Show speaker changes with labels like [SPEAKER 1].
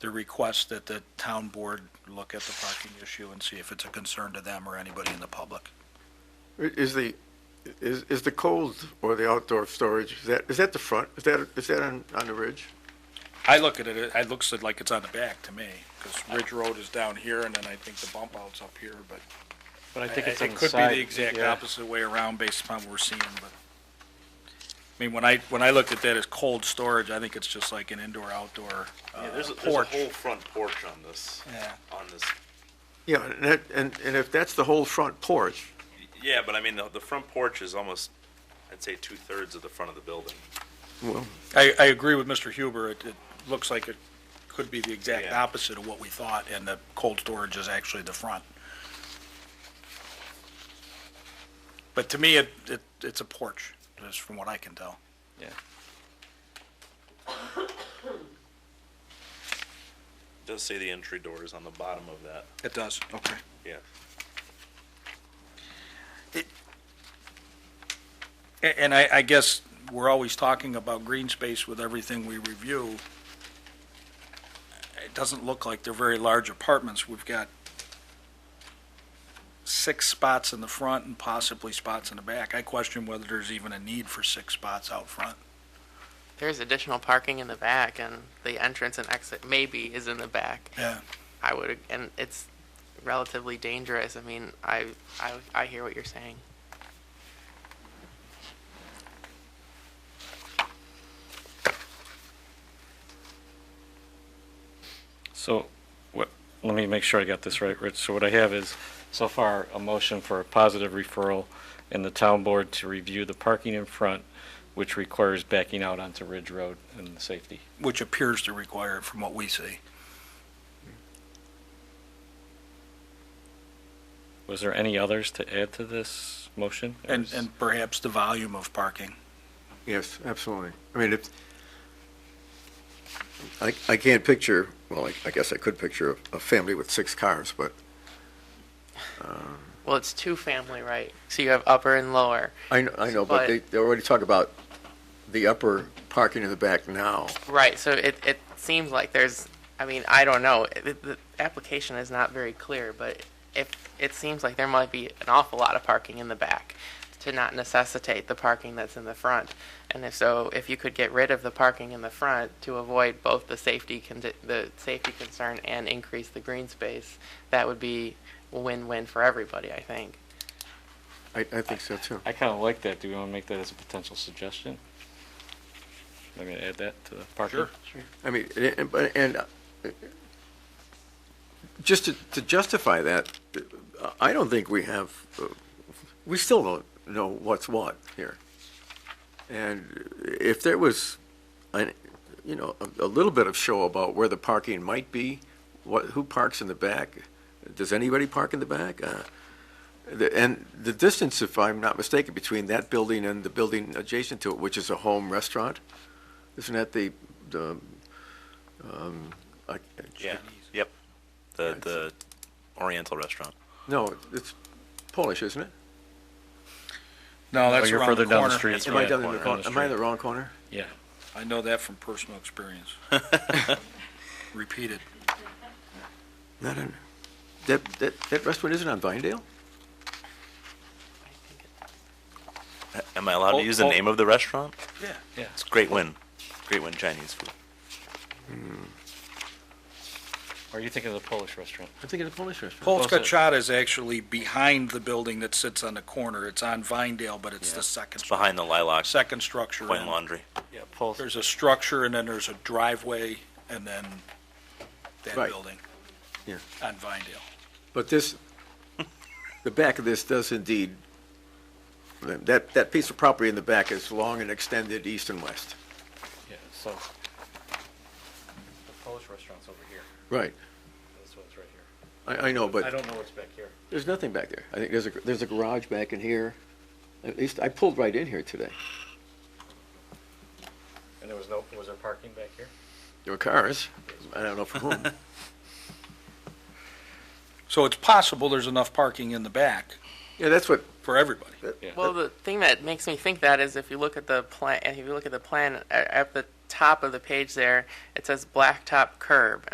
[SPEAKER 1] the request that the town board look at the parking issue and see if it's a concern to them or anybody in the public.
[SPEAKER 2] Is the, is, is the cold or the outdoor storage, is that, is that the front? Is that, is that on, on the ridge?
[SPEAKER 1] I look at it, it looks like it's on the back to me, because Ridge Road is down here, and then I think the bump out's up here, but
[SPEAKER 3] But I think
[SPEAKER 1] it
[SPEAKER 3] it's on the
[SPEAKER 1] could be
[SPEAKER 3] side.
[SPEAKER 1] the exact
[SPEAKER 3] yeah.
[SPEAKER 1] opposite way around based upon what we're seeing, but, I mean, when I, when I looked at that as cold storage, I think it's just like an indoor-outdoor
[SPEAKER 4] Yeah, there's a, there's a
[SPEAKER 1] porch.
[SPEAKER 4] whole front porch on this,
[SPEAKER 1] Yeah.
[SPEAKER 4] on this.
[SPEAKER 2] Yeah, and that, and, and if that's the whole front porch,
[SPEAKER 4] Yeah, but I mean, the, the front porch is almost, I'd say two-thirds of the front of the building.
[SPEAKER 2] well,
[SPEAKER 1] I, I agree with Mr. Huber, it, it looks like it could be the exact
[SPEAKER 4] Yeah.
[SPEAKER 1] opposite of what we thought, and the cold storage is actually the front. But to me, it, it, it's a porch, just from what I can tell.
[SPEAKER 3] Yeah.
[SPEAKER 4] It Does say the entry door is on the bottom of that,
[SPEAKER 1] It does, okay.
[SPEAKER 4] yeah.
[SPEAKER 1] A- And I, I guess we're always talking about green space with everything we review. It doesn't look like they're very large apartments. We've got six spots in the front and possibly spots in the back. I question whether there's even a need for six spots out front.
[SPEAKER 5] There's additional parking in the back, and the entrance and exit maybe is in the back.
[SPEAKER 1] Yeah.
[SPEAKER 5] I would, and it's relatively dangerous. I mean, I, I, I hear what you're saying.
[SPEAKER 3] So, what, let me make sure I got this right, Rich. So what I have is, so far, a motion for a positive referral and the town board to review the parking in front, which requires backing out onto Ridge Road and the safety.
[SPEAKER 1] Which appears to require it from what we see.
[SPEAKER 3] Was there any others to add to this motion? Or
[SPEAKER 1] And,
[SPEAKER 3] is-
[SPEAKER 1] and perhaps the volume of parking.
[SPEAKER 2] yes, absolutely. I mean, it's,
[SPEAKER 6] I, I can't picture, well, I, I guess I could picture a, a family with six cars, but
[SPEAKER 5] Well, it's two family, right? So you have upper and lower,
[SPEAKER 6] I, kn- I know, but they, they already talk about the upper parking in the back now.
[SPEAKER 5] right? So it, it seems like there's. I mean, I don't know. The, the application is not very clear, but if it seems like there might be an awful lot of parking in the back to not necessitate the parking that's in the front. And if so, if you could get rid of the parking in the front to avoid both the safety condi- the safety concern and increase the green space, that would be a win-win for everybody, I think.
[SPEAKER 2] I, I think so too.
[SPEAKER 3] I kind of like that. Do we want to make that as a potential suggestion? I'm going to add that to the parking.
[SPEAKER 1] Sure.
[SPEAKER 6] I mean, and- and, but- and uh, just to, to justify that, uh, I don't think we have, uh, we still don't know what's what here. And if there was, an, you know, a, a little bit of show about where the parking might be, what, who parks in the back? Does anybody park in the back? Uh, the, and the distance, if I'm not mistaken, between that building and the building adjacent to it, which is a home restaurant, isn't that the, the, um, I,
[SPEAKER 4] Yeah, yep. The, the Oriental restaurant.
[SPEAKER 6] no, it's Polish, isn't it?
[SPEAKER 1] No,
[SPEAKER 3] Oh,
[SPEAKER 1] that's
[SPEAKER 3] you're
[SPEAKER 1] around
[SPEAKER 3] further
[SPEAKER 1] the
[SPEAKER 3] down the
[SPEAKER 1] corner.
[SPEAKER 3] street.
[SPEAKER 4] That's
[SPEAKER 6] Am I
[SPEAKER 4] Yeah,
[SPEAKER 6] down in
[SPEAKER 4] corner,
[SPEAKER 6] the,
[SPEAKER 3] on
[SPEAKER 6] wrong-
[SPEAKER 3] the
[SPEAKER 6] am I in
[SPEAKER 3] street.
[SPEAKER 6] the wrong corner?
[SPEAKER 3] Yeah.
[SPEAKER 1] I know that from personal experience. Repeated.
[SPEAKER 6] Not in, that, that, that restaurant isn't on Vinedale?
[SPEAKER 5] I think it-
[SPEAKER 4] Am I allowed
[SPEAKER 3] Oh,
[SPEAKER 4] to use the
[SPEAKER 3] oh.
[SPEAKER 4] name of the restaurant?
[SPEAKER 1] Yeah.
[SPEAKER 4] It's Great Win, Great Win Chinese food.
[SPEAKER 3] Or are you thinking of the Polish restaurant?
[SPEAKER 6] I'm thinking of Polish restaurant.
[SPEAKER 1] Polska
[SPEAKER 3] Close it.
[SPEAKER 1] Chata is actually behind the building that sits on the corner. It's on Vinedale, but it's the second,
[SPEAKER 4] It's behind the Lilac
[SPEAKER 1] second structure.
[SPEAKER 4] Point
[SPEAKER 1] in.
[SPEAKER 4] Laundry.
[SPEAKER 3] Yeah, Polish.
[SPEAKER 1] There's a structure and then there's a driveway and then that
[SPEAKER 6] Right.
[SPEAKER 1] building.
[SPEAKER 6] Yeah.
[SPEAKER 1] On Vinedale.
[SPEAKER 6] But this, the back of this does indeed, that, that piece of property in the back is long and extended east and west.
[SPEAKER 3] Yeah, so. The Polish restaurant's over here.
[SPEAKER 6] Right.
[SPEAKER 3] This one's right here.
[SPEAKER 6] I, I know,
[SPEAKER 3] I
[SPEAKER 6] but
[SPEAKER 3] don't know what's back here.
[SPEAKER 6] there's nothing back there. I think there's a, there's a garage back in here. At least, I pulled right in here today.
[SPEAKER 3] And there was no, was there parking back here?
[SPEAKER 6] There were cars. I don't know for whom.
[SPEAKER 1] So it's possible there's enough parking in the back
[SPEAKER 6] Yeah, that's what,
[SPEAKER 1] for everybody.
[SPEAKER 3] Yeah.
[SPEAKER 5] Well, the thing that makes me think that is if you look at the plan, if you look at the plan a- at the top of the page there, it says blacktop curb,